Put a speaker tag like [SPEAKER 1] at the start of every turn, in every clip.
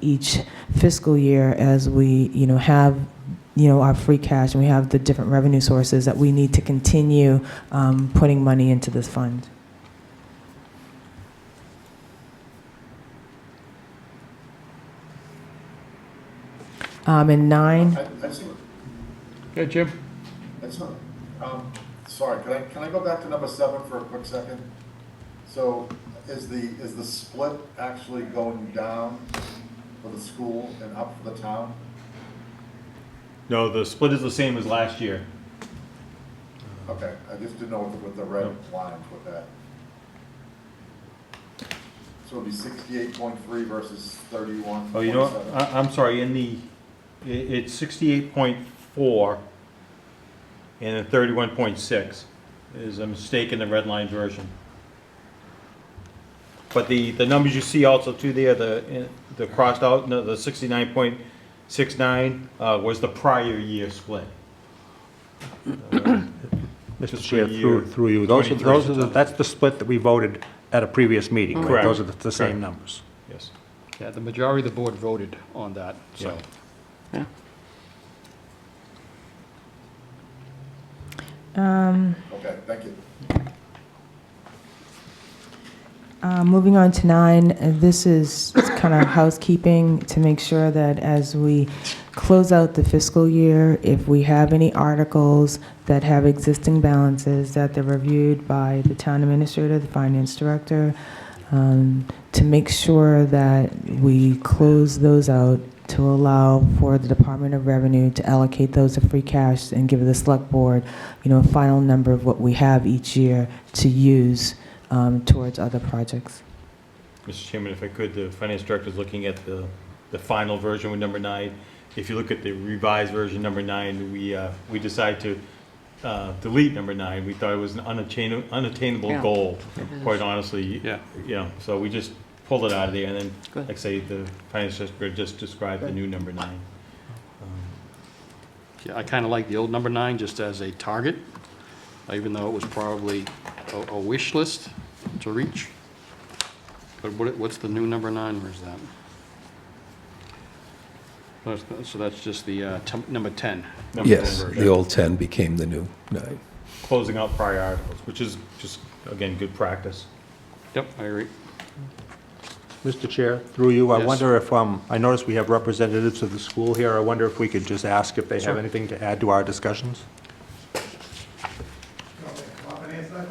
[SPEAKER 1] each fiscal year as we, you know, have, you know, our free cash and we have the different revenue sources that we need to continue um, putting money into this fund. Um, And nine,
[SPEAKER 2] I, I see,
[SPEAKER 3] Yeah, Jim?
[SPEAKER 2] that's not, um, sorry, can I, can I go back to number seven for a quick second? So is the, is the split actually going down for the school and up for the town?
[SPEAKER 4] No, the split is the same as last year.
[SPEAKER 2] Okay, I just didn't know what the- what the red lines with that. So it'd be sixty-eight point three versus thirty-one
[SPEAKER 4] Oh,
[SPEAKER 2] point
[SPEAKER 4] you
[SPEAKER 2] seven.
[SPEAKER 4] know, what? I, I'm sorry, in the, i it's sixty-eight point four and then thirty-one point six is a mistake in the red line version. But the, the numbers you see also too there, the, in- the crossed out, no, the sixty-nine point six nine, uh, was the prior year split.
[SPEAKER 5] Mr.
[SPEAKER 4] Just
[SPEAKER 5] Chair,
[SPEAKER 4] for year
[SPEAKER 5] through, through you, those are,
[SPEAKER 4] 23.
[SPEAKER 5] those are, the- that's the split that we voted at a previous meeting, right?
[SPEAKER 4] Correct.
[SPEAKER 5] Those are the- the
[SPEAKER 4] Correct.
[SPEAKER 5] same numbers.
[SPEAKER 4] Yes.
[SPEAKER 3] Yeah, the majority of the board voted on that, so.
[SPEAKER 4] Yeah.
[SPEAKER 1] um,
[SPEAKER 2] Okay, thank you.
[SPEAKER 1] Uh, Moving on to nine, uh, this is kind of housekeeping to make sure that as we close out the fiscal year, if we have any articles that have existing balances, that they're reviewed by the town administrator, the finance director, um, to make sure that we close those out to allow for the Department of Revenue to allocate those to free cash and give the select board, you know, a final number of what we have each year to use um, towards other projects.
[SPEAKER 4] Mr. Chairman, if I could, the finance director is looking at the, the final version with number nine. If you look at the revised version, number nine, we, uh, we decided to uh, delete number nine. We thought it was an unattain- unattainable
[SPEAKER 6] Yeah.
[SPEAKER 4] goal,
[SPEAKER 6] It is.
[SPEAKER 4] quite honestly.
[SPEAKER 3] Yeah.
[SPEAKER 4] You know, so we just pulled it out of there, and then,
[SPEAKER 6] Good.
[SPEAKER 4] like I say, the finance director just described the new number nine. Um,
[SPEAKER 3] Yeah, I kind of like the old number nine just as a target, even though it was probably a, a wish list to reach. But what, what's the new number nine, where's that? That's- So that's just the, uh, tem- number ten.
[SPEAKER 4] number
[SPEAKER 7] Yes,
[SPEAKER 4] 10
[SPEAKER 7] the
[SPEAKER 4] version.
[SPEAKER 7] old 10 became the new 9.
[SPEAKER 4] Closing out prior articles, which is just, again, good practice.
[SPEAKER 3] Yep, I agree.
[SPEAKER 5] Mr. Chair, through you, I
[SPEAKER 3] Yes.
[SPEAKER 5] wonder if, um, I noticed we have representatives of the school here. I wonder if we could just ask if they have anything to add to our discussions?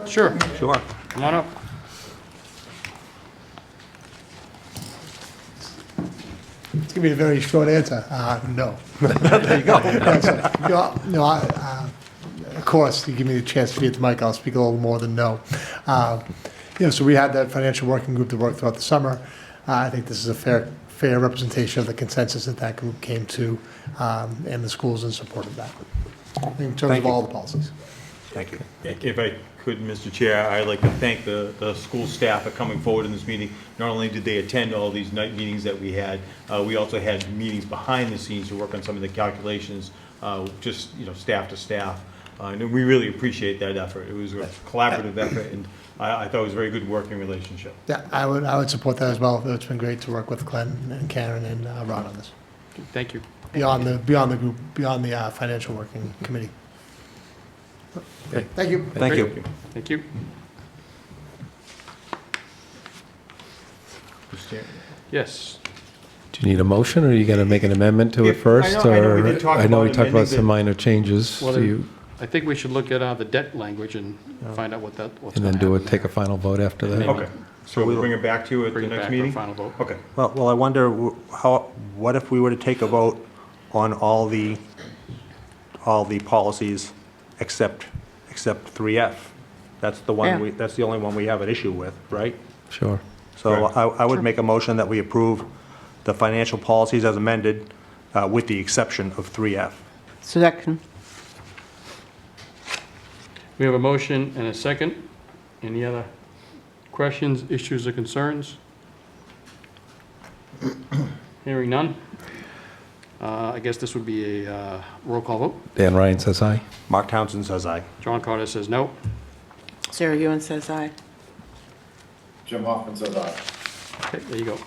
[SPEAKER 3] Sure,
[SPEAKER 5] Sure.
[SPEAKER 3] come on up.
[SPEAKER 8] It's gonna be a very short answer. Uh, no. there you go. no, no. I, uh, of course, you give me the chance to be at the mic, I'll speak a little more than no. Uh, you know, so we had that financial working group that worked throughout the summer. Uh, I think this is a fair, fair representation of the consensus that that group came to, um, and the schools in support of that in terms
[SPEAKER 5] Thank
[SPEAKER 8] of
[SPEAKER 5] you.
[SPEAKER 8] all the policies.
[SPEAKER 5] Thank you.
[SPEAKER 4] If I could, Mr. Chair, I'd like to thank the, the school staff for coming forward in this meeting. Not only did they attend all these night meetings that we had, uh, we also had meetings behind the scenes to work on some of the calculations, uh, just, you know, staff to staff. Uh, And we really appreciate that effort. It was a collaborative effort, and I, I thought it was a very good working relationship.
[SPEAKER 8] Yeah, I would, I would support that as well. It's been great to work with Glenn and Karen and uh, Ron on this.
[SPEAKER 3] Thank you.
[SPEAKER 8] Beyond the, beyond the group, beyond the uh, financial working committee.
[SPEAKER 5] Okay.
[SPEAKER 8] Thank you.
[SPEAKER 5] Thank you.
[SPEAKER 3] Thank you.
[SPEAKER 4] Mr. Chair.
[SPEAKER 3] Yes.
[SPEAKER 7] Do you need a motion, or are you going to make an amendment to it
[SPEAKER 4] If- I
[SPEAKER 7] first?
[SPEAKER 4] know- I know we
[SPEAKER 7] or-
[SPEAKER 4] did talk
[SPEAKER 7] I know we
[SPEAKER 4] about
[SPEAKER 7] talked about
[SPEAKER 4] amending
[SPEAKER 7] some
[SPEAKER 4] the-
[SPEAKER 7] minor changes,
[SPEAKER 3] Well,
[SPEAKER 7] Do
[SPEAKER 3] there-
[SPEAKER 7] you-
[SPEAKER 3] I think we should look at uh, the debt language and find out what that, what's
[SPEAKER 7] and
[SPEAKER 3] gonna
[SPEAKER 7] then do it,
[SPEAKER 3] happen
[SPEAKER 7] take a final vote after
[SPEAKER 3] Maybe.
[SPEAKER 7] that.
[SPEAKER 4] Okay, so we'll bring it back to you
[SPEAKER 3] there.
[SPEAKER 4] at the
[SPEAKER 3] Bring it
[SPEAKER 4] next
[SPEAKER 3] back for a
[SPEAKER 4] meeting?
[SPEAKER 3] final vote.
[SPEAKER 4] Okay,
[SPEAKER 5] Well, well, I wonder w- how, what if we were to take a vote on all the, all the policies except, except 3F? That's the
[SPEAKER 6] Yeah.
[SPEAKER 5] one, we. that's the only one we have an issue with, right?
[SPEAKER 7] Sure.
[SPEAKER 5] So I, I would make a motion that we approve the financial policies as amended, uh, with the exception of 3F.
[SPEAKER 6] Second.
[SPEAKER 3] We have a motion and a second. Any other questions, issues, or concerns? Hearing none. Uh, I guess this would be a uh, roll call vote.
[SPEAKER 7] Dan Ryan says aye.
[SPEAKER 5] Mark Townsend says aye.
[SPEAKER 3] John Carter says no.
[SPEAKER 6] Sarah Ewan says aye.
[SPEAKER 2] Jim Hoffman says aye.
[SPEAKER 3] Okay, there you go.